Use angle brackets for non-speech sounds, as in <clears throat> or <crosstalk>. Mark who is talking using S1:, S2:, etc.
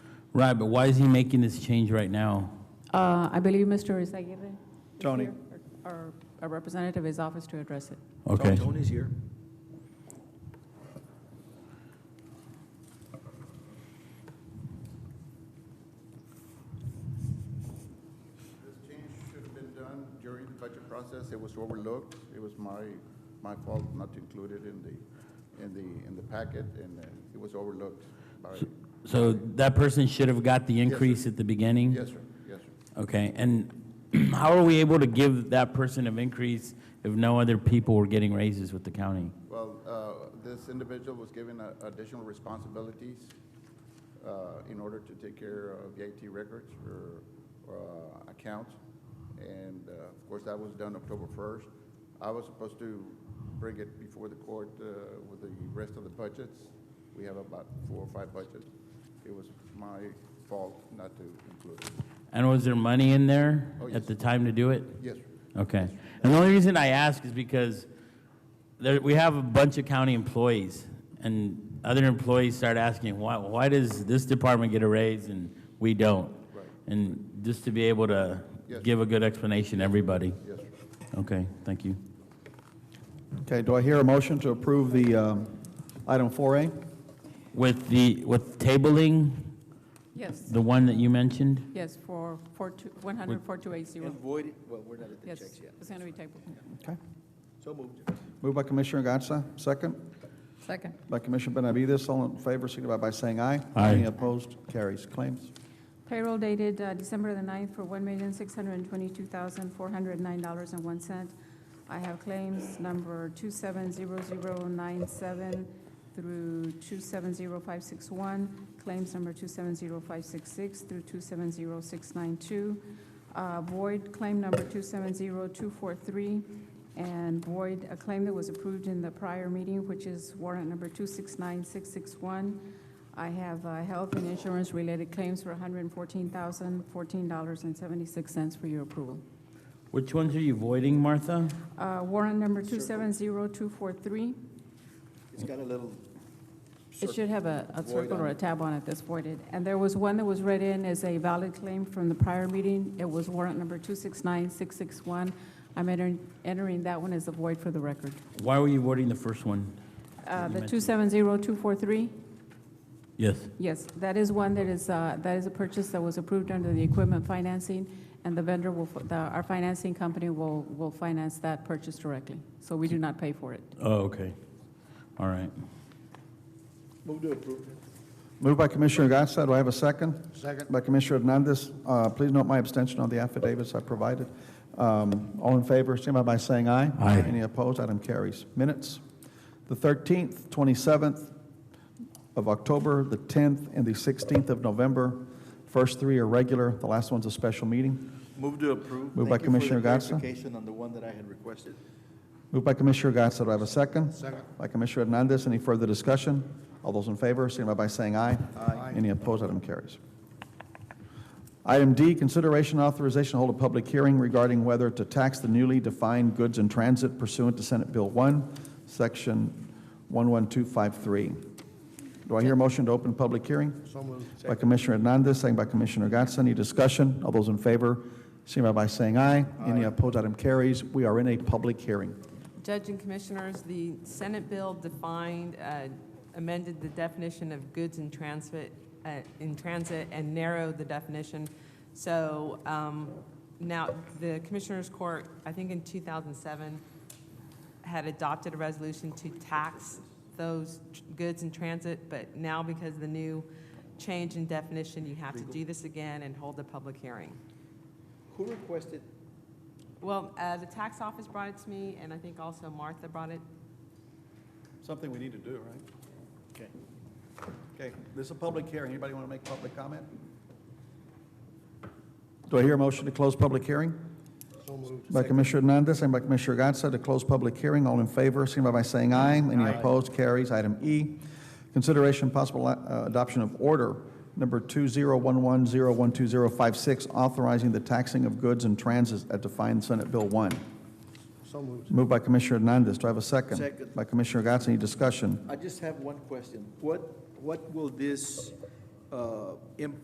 S1: Right, but why is he making this change right now?
S2: Uh, I believe Mr. Izaguirre. is
S3: Tony.
S2: here, Or or a representative of his office to address it.
S1: Okay.
S3: Tony's here.
S4: This change should have been done during the budget process. It was overlooked. It was my, my fault not to include it in the, in the, in the packet, and uh, it was overlooked by,
S1: So that person should have got the increase at the beginning?
S4: yes, sir, yes, sir.
S1: Okay, and <clears throat> how are we able to give that person an increase if no other people were getting raises with the county?
S4: Well, uh, this individual was given uh, additional responsibilities uh, in order to take care of VAT records or uh, accounts. And uh, of course, that was done October 1st. I was supposed to bring it before the court uh, with the rest of the budgets. We have about four or five budgets. It was my fault not to include it.
S1: And was there money in there
S4: Oh, yes.
S1: at the time to do it?
S4: Yes, sir.
S1: Okay. And the only reason I ask is because there, we have a bunch of county employees, and other employees start asking, why, why does this department get a raise and we don't?
S4: Right.
S1: And just to be able to
S4: Yes.
S1: give a good explanation to everybody.
S4: yes, sir.
S1: Okay, thank you.
S3: Okay, do I hear a motion to approve the um, item 4A?
S1: With the, with tabling,
S2: Yes,
S1: the one that you mentioned?
S2: yes, for 1004280.
S5: And void, it- well, we're not at the
S2: Yes,
S5: checks yet.
S2: it's going to be tabled.
S3: Okay.
S5: So moved.
S3: Moved by Commissioner Gatsa, second
S2: Second.
S3: by Commissioner Benavides. All in favor, signify by saying aye.
S1: Aye.
S3: Any opposed? Carries. Claims?
S2: Payroll dated uh, December the 9th for $1,622,409.01. I have claims number 270097 through 270561, claims number 270566 through 270692, uh, void claim number 270243, and void a claim that was approved in the prior meeting, which is warrant number 269661, I have uh, health and insurance-related claims for $114,014.76 for your approval.
S1: Which ones are you voiding, Martha?
S2: Uh, Warrant number 270243,
S5: It's got a little.
S2: it
S5: circle.
S2: should have a a
S5: Void
S2: circle or
S5: on
S2: a
S5: it.
S2: tab on it that's voided. And there was one that was read in as a valid claim from the prior meeting. It was warrant number 269661. I'm entering- entering that one as a void for the record.
S1: Why were you voiding the first one?
S2: Uh, The
S1: Amendment.
S2: 270243,
S1: Yes.
S2: yes, that is one that is, uh, that is a purchase that was approved under the equipment financing, and the vendor will, the- our financing company will, will finance that purchase directly. So we do not pay for it.
S1: Oh, okay. All right.
S5: Move to approve.
S3: Moved by Commissioner Gatsa. Do I have a second?
S4: Second.
S3: By Commissioner Hernandez. Uh, Please note my abstention on the affidavits I provided. Um, All in favor, signify by saying aye.
S1: Aye.
S3: Any opposed? Item carries. Minutes. The 13th, 27th of October, the 10th, and the 16th of November. First three are regular, the last one's a special meeting.
S5: Move to approve.
S3: Moved by
S5: Thank you for the
S3: Commissioner Gatsa.
S5: Clarification on the one that I had requested.
S3: Moved by Commissioner Gatsa. Do I have a second? Second. By Commissioner Hernandez. Any further discussion? All those in favor, signify by saying aye. Aye. Any opposed? Item carries. Item D, consideration and authorization to hold a public hearing regarding whether to tax the newly defined goods in transit pursuant to Senate Bill 1, Section 11253. Do I hear a motion to open public hearing? So moved. By Commissioner Hernandez, second by Commissioner Gatsa. Any discussion? All those in favor, signify by saying aye. Any opposed? Item carries. We are in a public hearing.
S6: Judge and Commissioners, the Senate bill defined, uh, amended the definition of goods in transit, uh, in transit and narrowed the definition. So um, now, the Commissioners Court, I think in 2007, had adopted a resolution to tax those tr- goods in transit, but now because of the new change in definition, you have to do this again and hold a public hearing.
S5: Who requested?
S6: Well, uh, the tax office brought it to me, and I think also Martha brought it
S3: Something we need to do, right? Okay. Okay, this is a public hearing. Anybody want to make public comment? Do I hear a motion to close public hearing? So moved. By Commissioner Hernandez, second by Commissioner Gatsa, to close public hearing. All in favor, signify by saying aye. Any opposed, carries. Item E, consideration possible uh, adoption of order number 2011012056, authorizing the taxing of goods and transits at defined Senate Bill 1.
S5: So moved.
S3: Moved by Commissioner Hernandez. Do I have a second?
S5: Second.
S3: By Commissioner Gatsa. Any discussion?
S5: I just have one question. What, what will this uh, impact